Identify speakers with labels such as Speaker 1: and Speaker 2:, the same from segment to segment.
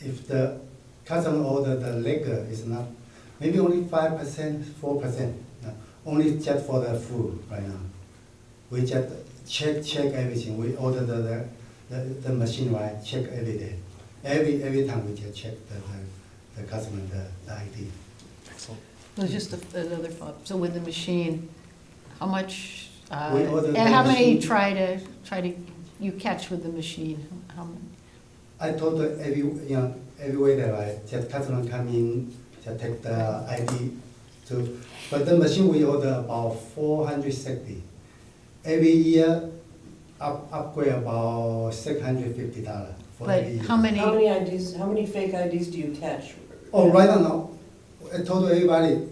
Speaker 1: if the custom order, the liquor is not, maybe only five percent, four percent, uh, only just for the food right now. We just check, check everything, we order the, the, the, the machine, right, check every day. Every, every time we just check the, the, the customer, the, the ID.
Speaker 2: Excellent.
Speaker 3: It was just a- another thought. So with the machine, how much, uh,
Speaker 1: We ordered
Speaker 3: and
Speaker 1: the
Speaker 3: how many
Speaker 1: machine.
Speaker 3: try to, try to, you catch with the machine? How many?
Speaker 1: I told her every, you know, every way that I, just customer come in, just take the ID to, but the machine we order about four hundred sixty. Every year, up, upgrade about six hundred fifty dollar for every
Speaker 3: But
Speaker 1: year.
Speaker 3: how many,
Speaker 4: How many IDs, how many fake IDs do you catch?
Speaker 1: Oh, right now, I told everybody,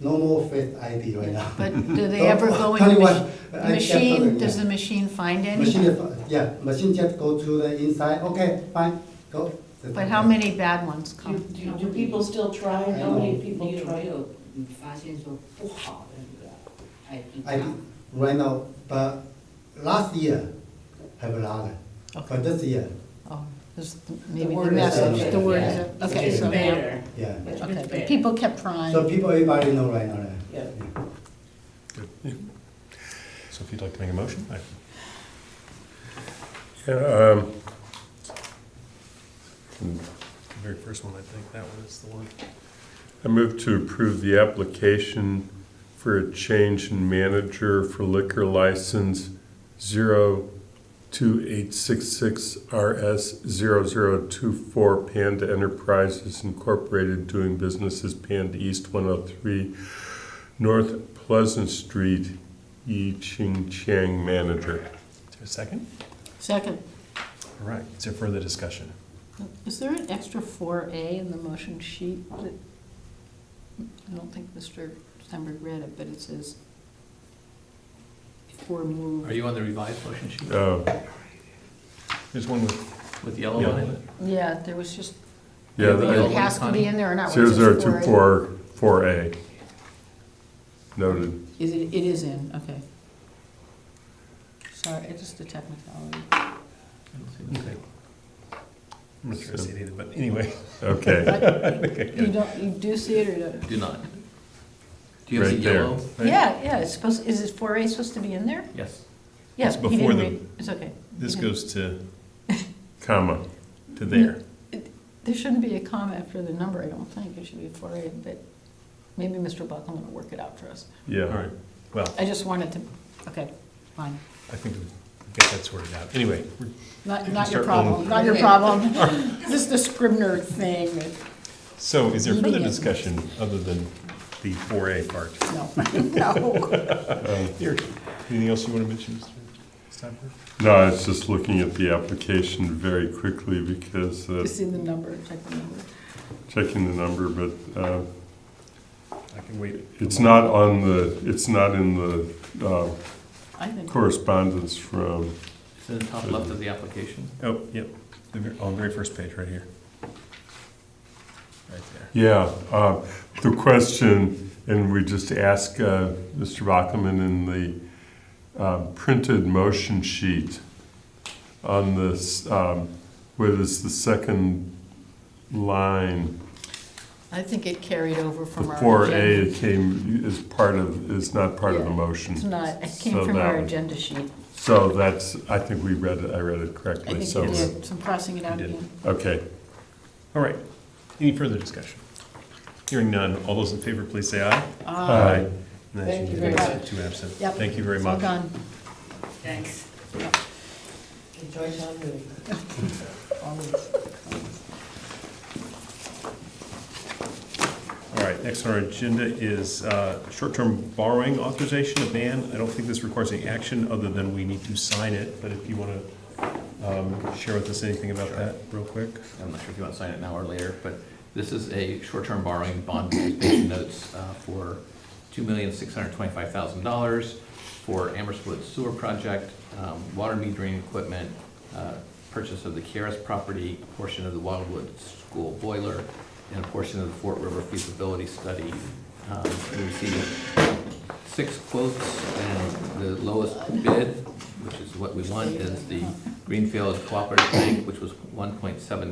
Speaker 1: no more fake ID right now.
Speaker 3: but do they ever go in the
Speaker 1: Twenty-one. I
Speaker 3: machine? The
Speaker 1: kept
Speaker 3: machine,
Speaker 1: telling,
Speaker 3: does
Speaker 1: yeah.
Speaker 3: the machine find
Speaker 1: Machine,
Speaker 3: any?
Speaker 1: is- yeah, machine just go to the inside, okay, fine, go.
Speaker 3: But how many bad ones
Speaker 4: Do,
Speaker 3: come?
Speaker 4: do do people still try?
Speaker 1: I
Speaker 4: How many
Speaker 1: know.
Speaker 4: people
Speaker 5: 没有没
Speaker 4: try?
Speaker 5: 有嗯发现说不好的那个 ID
Speaker 1: I
Speaker 5: 卡
Speaker 1: think right now, but last year have a lot, but this year,
Speaker 3: Oh, there's maybe the
Speaker 4: word is out
Speaker 3: message,
Speaker 4: there.
Speaker 3: the word is,
Speaker 5: Yeah.
Speaker 3: out- okay,
Speaker 5: It's
Speaker 3: so now,
Speaker 5: better.
Speaker 1: yeah.
Speaker 5: Much
Speaker 3: okay,
Speaker 5: better.
Speaker 3: but people kept trying.
Speaker 1: So people, everybody know right now.
Speaker 4: Yeah.
Speaker 2: So if you'd like to make a motion, I-
Speaker 6: Yeah, um,
Speaker 2: the very first one, I think that one is the one.
Speaker 6: I move to approve the application for a change in manager for liquor license 02866RS0024 Panda Enterprises Incorporated, doing business as Panda East 103 North Pleasant Street, Yi Ching Chang manager.
Speaker 2: Is there a second?
Speaker 3: Second,
Speaker 2: All right, is there further discussion?
Speaker 3: is there an extra four A in the motion sheet that, I don't think Mr. Steinberg read it, but it says, for move.
Speaker 7: Are you on the revised motion sheet
Speaker 6: Uh,
Speaker 2: There's one with,
Speaker 7: with the yellow on it?
Speaker 3: Yeah, there was just,
Speaker 6: Yeah,
Speaker 7: The
Speaker 3: it
Speaker 7: yellow
Speaker 6: I-
Speaker 3: has to be in there or not. whether it's four.
Speaker 6: 0024, 4A. Noted.
Speaker 3: Is it, it is in, okay. Sorry, it's just a technicality.
Speaker 7: I don't see the thing.
Speaker 2: I'm not sure I see it either, but anyway.
Speaker 6: Okay,
Speaker 3: You don't, you do see it or don't?
Speaker 7: Do not. Do you have the
Speaker 6: Right there.
Speaker 7: yellow?
Speaker 3: Yeah, yeah, it's supposed, is it four A supposed to be in there?
Speaker 7: Yes.
Speaker 3: Yeah,
Speaker 2: It's
Speaker 3: he
Speaker 2: before
Speaker 3: didn't
Speaker 2: the-
Speaker 3: read, it's okay.
Speaker 2: This
Speaker 3: Yeah.
Speaker 2: goes to,
Speaker 6: comma.
Speaker 2: to there.
Speaker 3: There shouldn't be a comma after the number, I don't think, it should be four A, but maybe Mr. Buckland will work it out for us.
Speaker 2: All
Speaker 6: Yeah.
Speaker 2: right, well,
Speaker 3: I just wanted to, okay, fine.
Speaker 2: I think we've got that sorted out. Anyway, we're-
Speaker 3: Not,
Speaker 2: You
Speaker 3: not your
Speaker 2: start rolling.
Speaker 3: problem, not your problem. This is the Scribner thing, but
Speaker 2: so is there further
Speaker 3: Meeting.
Speaker 2: discussion other than the 4A part?
Speaker 3: no, no.
Speaker 2: Here, anything else you want to mention, Mr. Steinberg?
Speaker 6: No, I was just looking at the application very quickly because, uh,
Speaker 3: Just in the number, check the number.
Speaker 6: checking the number, but uh,
Speaker 2: I can wait. a
Speaker 6: it's
Speaker 2: moment.
Speaker 6: not on the, it's not in the uh,
Speaker 3: I think,
Speaker 6: correspondence from,
Speaker 7: It's in the top left of the application.
Speaker 2: Oh, yep, the ver- on the very first page, right here. Right there.
Speaker 6: yeah. uh, The question, and we just asked uh, Mr. Bachman in the uh, printed motion sheet on this, um, what is the second line?
Speaker 3: I think it carried over
Speaker 6: The
Speaker 3: from our.
Speaker 6: four A
Speaker 3: agenda.
Speaker 6: it came, is part of, is not part of the
Speaker 3: Yeah.
Speaker 6: motion.
Speaker 3: It's not, it came
Speaker 6: So
Speaker 3: from our
Speaker 6: that-
Speaker 3: agenda sheet.
Speaker 6: So that's, I think we read it, I read it
Speaker 3: I
Speaker 6: correctly,
Speaker 3: think
Speaker 6: so,
Speaker 3: you
Speaker 6: we're-
Speaker 3: did, so I'm crossing it out
Speaker 2: You did.
Speaker 3: again.
Speaker 6: okay.
Speaker 2: All right, any further discussion? Hearing none, all those in favor, please say aye.
Speaker 6: Aye.
Speaker 2: And that's
Speaker 4: Thank you
Speaker 2: unanimous,
Speaker 4: very much.
Speaker 2: Two absent.
Speaker 3: Yep.
Speaker 2: Thank you very
Speaker 3: It's all
Speaker 2: much.
Speaker 3: gone.
Speaker 5: Thanks.
Speaker 4: Enjoy town meeting.
Speaker 3: Always.
Speaker 2: All right, next on our agenda is uh, short-term borrowing authorization, a ban. I don't think this requires any action other than we need to sign it, but if you want to share with us anything about that real quick.
Speaker 7: I'm not sure if you want to sign it now or later, but this is a short-term borrowing bond anticipation notes uh, for $2,625,000 for Amherst Woods Sewer Project, um, water metering equipment, uh, purchase of the Kieras property, a portion of the Wildwood School boiler, and a portion of the Fort River feasibility study. Um, We received six quotes, and the lowest bid, which is what we want, is the Greenfield Cooperative Bank, which was one point seven